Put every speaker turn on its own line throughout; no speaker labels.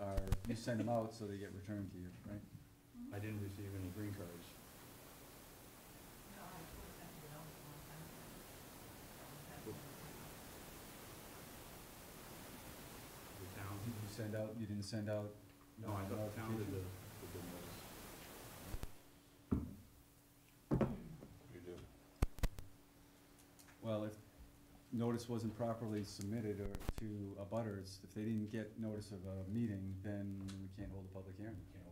are, you send them out so they get returned to you, right?
I didn't receive any green cards.
No, I told them, you know, a long time ago.
The town,
Did you send out, you didn't send out?
no, I thought the town did the,
notification?
did the notice.
You do.
Well, if notice wasn't properly submitted or to a butters, if they didn't get notice of a meeting, then we can't hold a public hearing.
you know,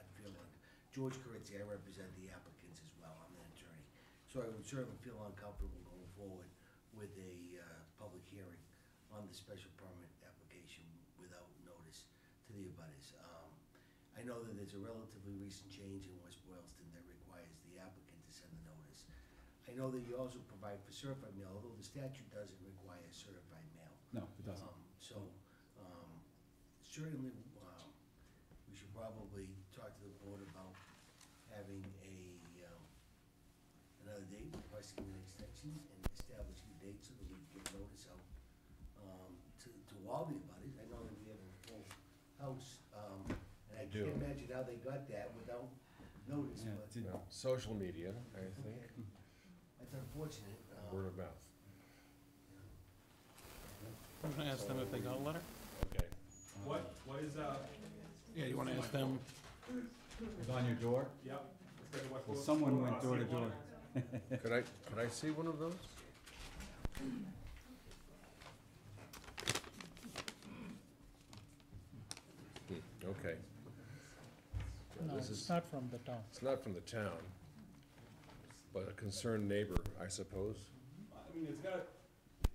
I feel like, George Corinzi, I represent the applicants as well, I'm an attorney. So I would certainly feel uncomfortable going forward with a, uh, public hearing on the special permit application without notice to the abutters. Um, I know that there's a relatively recent change in West Boylston that requires the applicant to send the notice. I know that you also provide for certified mail, although the statute doesn't require certified mail.
No, it doesn't.
Um, So, um, certainly, um, we should probably talk to the board about having a, um, another date, requesting an extension and establishing a date so that we can get notice out, um, to, to all the abutters. I know that we have a full house, um, and I
We do.
can't imagine how they got that without
Uh-huh.
notice,
Yeah,
but
did-
Well, Social media, I think,
okay. That's unfortunate. um,
word of mouth.
I'm gonna ask them if they got a letter.
Okay.
uh,
What, what is, uh,
Yeah, you wanna ask them?
it was on your door?
yep, let's go to West
Well,
Boylston.
Uh-huh. someone
I'll
went
see
door to
one.
door.
Could I, could I see one of those? Hmm, Okay. Yeah,
No,
This
it's
is,
not from the town.
it's not from the town, but a concerned neighbor, I suppose.
I mean, it's got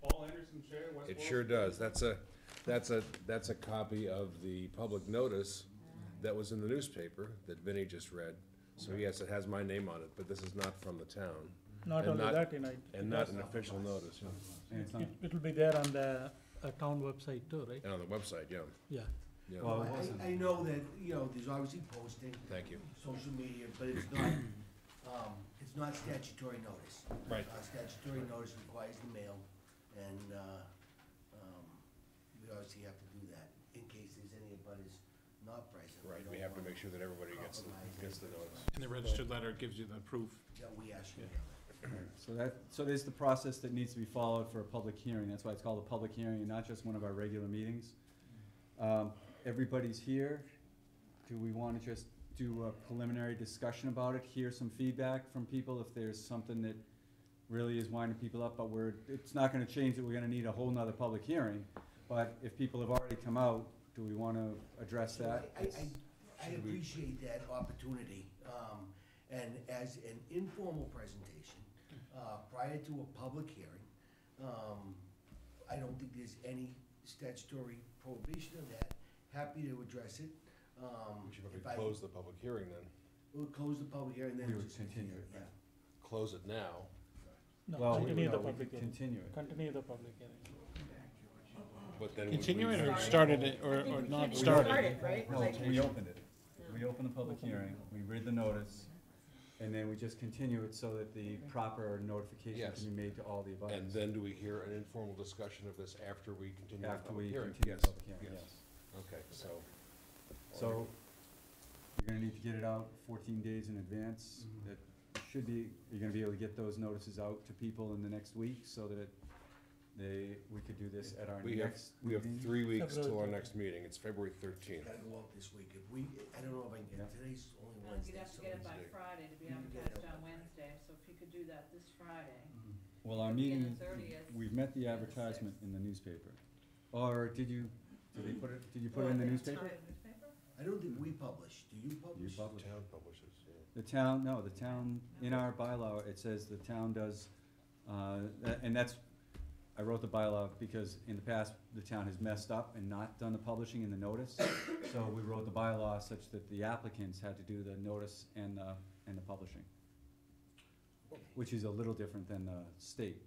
Paul Anderson chair, West
It sure
Boylston.
does. That's a, that's a, that's a copy of the public notice that was in the newspaper that Vinnie just read. So yes, it has my name on it, but this is not from the town
Not
And
only
not-
that, you know, it-
and not an official notice. yeah.
And it's not,
it, it'll be there on the, uh, town website too, right?
And on the website, yeah,
Yeah.
yeah.
well, it wasn't.
I, I know that, you know, there's obviously posting,
Thank you.
social media, but it's not, um, it's not statutory notice.
Right.
Uh, statutory notice requires the mail, and, uh, um, we obviously have to do that in case there's any abutters not present.
Right, we have to make sure that everybody gets, the- gets the notice.
And the registered letter gives you the proof.
That we ask you.
So that, so there's the process that needs to be followed for a public hearing, that's why it's called a public hearing, and not just one of our regular meetings. Um, everybody's here, do we wanna just do a preliminary discussion about it, hear some feedback from people if there's something that really is winding people up, but we're, it's not gonna change that we're gonna need a whole nother public hearing, but if people have already come out, do we wanna address
So
that?
I, I, I- I appreciate that opportunity, um, and as an informal presentation,
Hmm.
uh, prior to a public hearing, um, I don't think there's any statutory prohibition of that, happy to address it, um.
We should
if I-
probably close the public hearing then,
We'll close the public hearing, then.
We would
just
continue it,
Yeah,
close it now.
No,
Well, we-
continue
no,
the
we
public
could
hearing.
Continue it.
Continue the public hearing.
But then would we-
Continue it or started it, or, or not started?
right?
No, we opened it. We opened the public hearing, we read the notice, and then we just continue it so that the proper notification
Yes.
can be made to all the
And
abutters.
then do we hear an informal discussion of this after we continue the
After
public
we
hearing?
continue
Yes,
the public hearing, yes.
Okay, so.
So, you're gonna need to get it out fourteen days in advance. That should be, you're gonna be able to get those notices out to people in the next week so that they, we could do this at our
We have,
next
we have
meeting.
three weeks
February
till our
13th.
next meeting, it's February thirteenth.
gotta go out this week, if we, I don't know if I can
Yeah.
get, today's only
No,
Wednesday,
You'd have to
so
get it
it's-
by
Wednesday.
Friday to be
You can get it
advertised
out
on
by-
Wednesday, so if you could do that this Friday.
Mm-hmm.
Well, our
Beginning
meeting,
30th,
we've met the
the
advertisement
sixth.
in the newspaper. Or did you, did they put it, did you put it in the newspaper?
Newspaper?
I don't think we publish, do you
You
publish?
published.
Town publishes, yeah.
The town, no, the town, in our bylaw, it says the town does, uh, tha- and that's, I wrote the bylaw because in the past, the town has messed up and not done the publishing and the notice. So we wrote the bylaw such that the applicants had to do the notice and the, and the publishing, which is a little different than the state.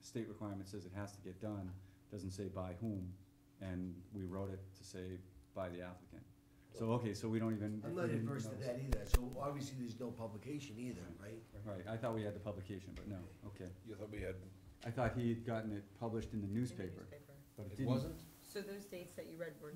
State requirement says it has to get done, doesn't say by whom, and we wrote it to say by the applicant. So, okay, so we don't even.
I'm
we
not
didn't
adverse to
notice.
that either, so obviously there's no publication either, right?
Right, I thought we had the publication, but no, okay.
You thought we had,
I thought he had gotten it published in the newspaper, but it
it
didn't.
wasn't?
So those dates that you read were